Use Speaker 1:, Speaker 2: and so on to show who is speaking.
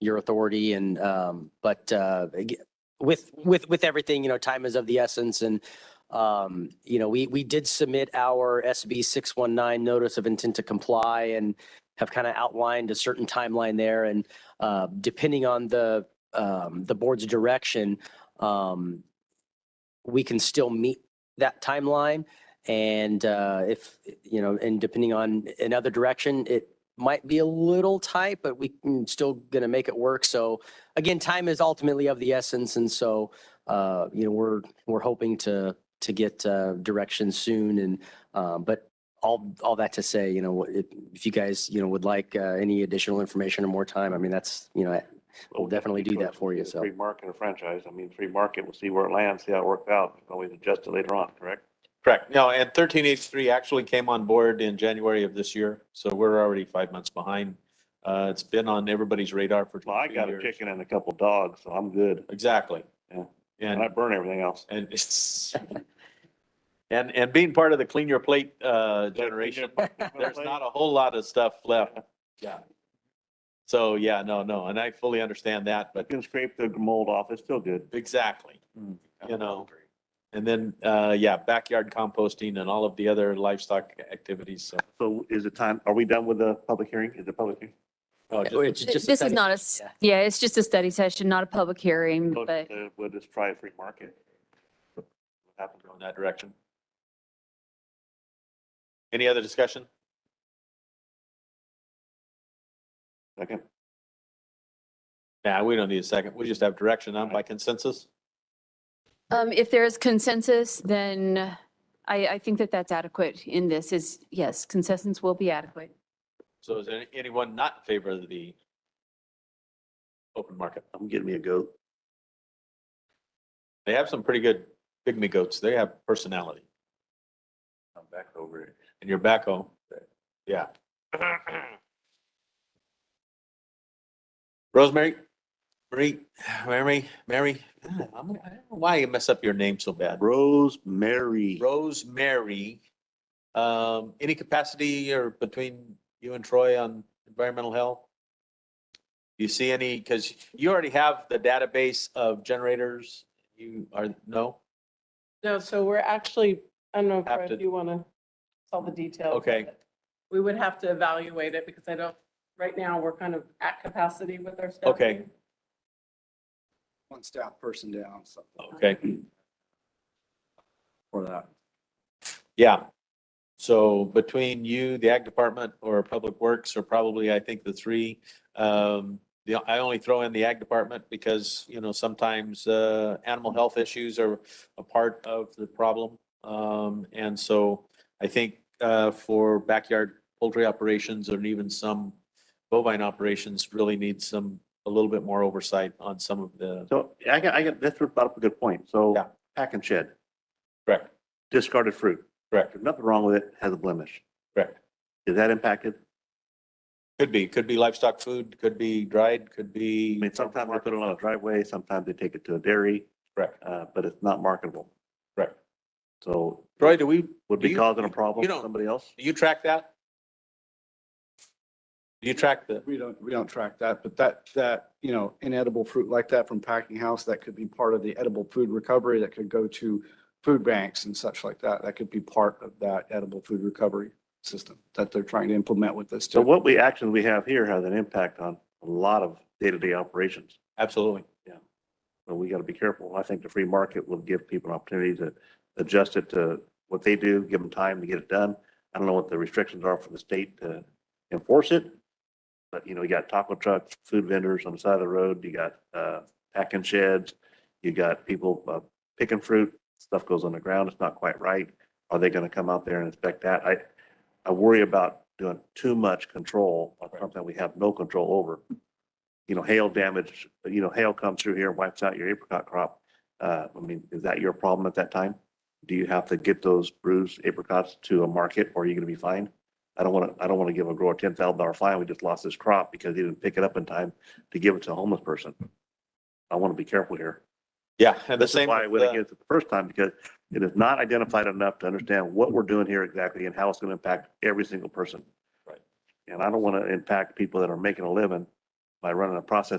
Speaker 1: your authority and, um, but, uh, ag- with, with, with everything, you know, time is of the essence and, um, you know, we, we did submit our SB six one nine notice of intent to comply and have kind of outlined a certain timeline there and, uh, depending on the, um, the board's direction, um, we can still meet that timeline. And, uh, if, you know, and depending on another direction, it might be a little tight, but we can still gonna make it work. So again, time is ultimately of the essence. And so, uh, you know, we're, we're hoping to, to get, uh, direction soon and, um, but all, all that to say, you know, what- if, if you guys, you know, would like, uh, any additional information or more time, I mean, that's, you know, we'll definitely do that for you. So.
Speaker 2: Free market or franchise, I mean, free market, we'll see where it lands, see how it works out, We can always adjust it later on, correct?
Speaker 3: Correct. No, and thirteen eighty-three actually came on board in January of this year, so we're already five months behind. Uh, it's been on everybody's radar for.
Speaker 2: Well, I
Speaker 3: two
Speaker 2: got a
Speaker 3: years.
Speaker 2: chicken and a couple dogs, so I'm good,
Speaker 3: Exactly.
Speaker 2: Yeah. and I
Speaker 3: And,
Speaker 2: burn everything else.
Speaker 3: and it's, and, and being part of the Clean Your Plate, uh, generation, there's not a whole lot of stuff left. Yeah. So, yeah, no, no, and I fully understand that, but
Speaker 2: You Can scrape the mold off, it's still good.
Speaker 3: exactly.
Speaker 2: Hmm.
Speaker 3: You know, and then, uh, yeah, backyard composting and all of the other livestock activities, so.
Speaker 2: So is it time, are we done with the public hearing? Is the public hearing?
Speaker 3: oh, just-
Speaker 1: It's
Speaker 4: Th-
Speaker 1: just a
Speaker 4: This is
Speaker 1: study.
Speaker 4: not a, s- yeah, it's just a study session, not a public hearing, but
Speaker 2: Uh, We'll just try a free market. What happens
Speaker 3: in
Speaker 2: on that?
Speaker 3: that direction. Any other discussion?
Speaker 2: Second,
Speaker 3: Nah, we don't need a second. We just have direction on by consensus.
Speaker 4: um, if there is consensus, then I, I think that that's adequate in this is, yes, consensus will be adequate.
Speaker 3: So is there anyone not in favor of the open market?
Speaker 2: I'm getting me a goat.
Speaker 3: They have some pretty good pygmy goats. They have personality.
Speaker 2: I'm back over it.
Speaker 3: And your backhoe, yeah. Rosemary, Marie, Mary, Mary, God, I'm- I don't know why you mess up your name so bad.
Speaker 2: Rosemary.
Speaker 3: Rosemary, um, any capacity or between you and Troy on environmental health? You see any, because you already have the database of generators, you are, no?
Speaker 5: No, so we're actually, I don't know,
Speaker 3: Have
Speaker 5: Fred,
Speaker 3: to-
Speaker 5: if you want to tell the details. of
Speaker 3: Okay.
Speaker 5: it. We would have to evaluate it because I don't, right now, we're kind of at capacity with our staff.
Speaker 3: Okay.
Speaker 6: one staff person down, so
Speaker 3: Okay,
Speaker 6: for that.
Speaker 3: yeah. So between you, the ag department or public works are probably, I think, the three. Um, the, I only throw in the ag department because, you know, sometimes, uh, animal health issues are a part of the problem. Um, and so I think, uh, for backyard poultry operations and even some bovine operations really need some, a little bit more oversight on some of the,
Speaker 2: So I got, I got, that's brought up a good point. So
Speaker 3: Yeah.
Speaker 2: pack and shed,
Speaker 3: correct,
Speaker 2: discarded fruit.
Speaker 3: correct,
Speaker 2: There's nothing wrong with it, has a blemish.
Speaker 3: correct.
Speaker 2: Is that impacted?
Speaker 3: Could be, could be livestock food, could be dried, could be.
Speaker 2: I mean, sometimes they put it on a driveway, sometimes they take it to a dairy,
Speaker 3: Correct,
Speaker 2: uh, but it's not marketable.
Speaker 3: correct.
Speaker 2: So
Speaker 3: Troy, do we,
Speaker 2: would
Speaker 3: Do
Speaker 2: be
Speaker 3: you-
Speaker 2: causing a problem
Speaker 3: you
Speaker 2: to
Speaker 3: don't-
Speaker 2: somebody else?
Speaker 3: Do you track that? Do you track the,
Speaker 6: We don't, we don't track that, but that, that, you know, inedible fruit like that from packing house, that could be part of the edible food recovery that could go to food banks and such like that. That could be part of that edible food recovery system that they're trying to implement with this
Speaker 2: So
Speaker 6: too.
Speaker 2: what we, actions we have here has an impact on a lot of day-to-day operations.
Speaker 3: absolutely.
Speaker 2: But we got to be careful. I think the free market will give people an opportunity to adjust it to what they do, give them time to get it done. I don't know what the restrictions are for the state to enforce it. But, you know, you got taco trucks, food vendors on the side of the road, you got, uh, packing sheds, you got people uh, picking fruit, stuff goes on the ground, it's not quite right. Are they going to come out there and inspect that? I, I worry about doing too much control on something we have no control over you know, hail damage, you know, hail comes through here and wipes out your apricot crop. Uh, I mean, is that your problem at that time? Do you have to get those bruised apricots to a market or are you gonna be fined? I don't wanna, I don't wanna give a grower ten thousand dollar fine. We just lost this crop because he didn't pick it up in time to give it to a homeless person. I wanna be careful here.
Speaker 3: Yeah, and the
Speaker 2: This is
Speaker 3: same.
Speaker 2: why I
Speaker 3: with,
Speaker 2: went
Speaker 3: uh,
Speaker 2: against it the first time because it is not identified enough to understand what we're doing here exactly and how it's gonna impact every single person.
Speaker 3: Right.
Speaker 2: And I don't wanna impact people that are making a living by running a process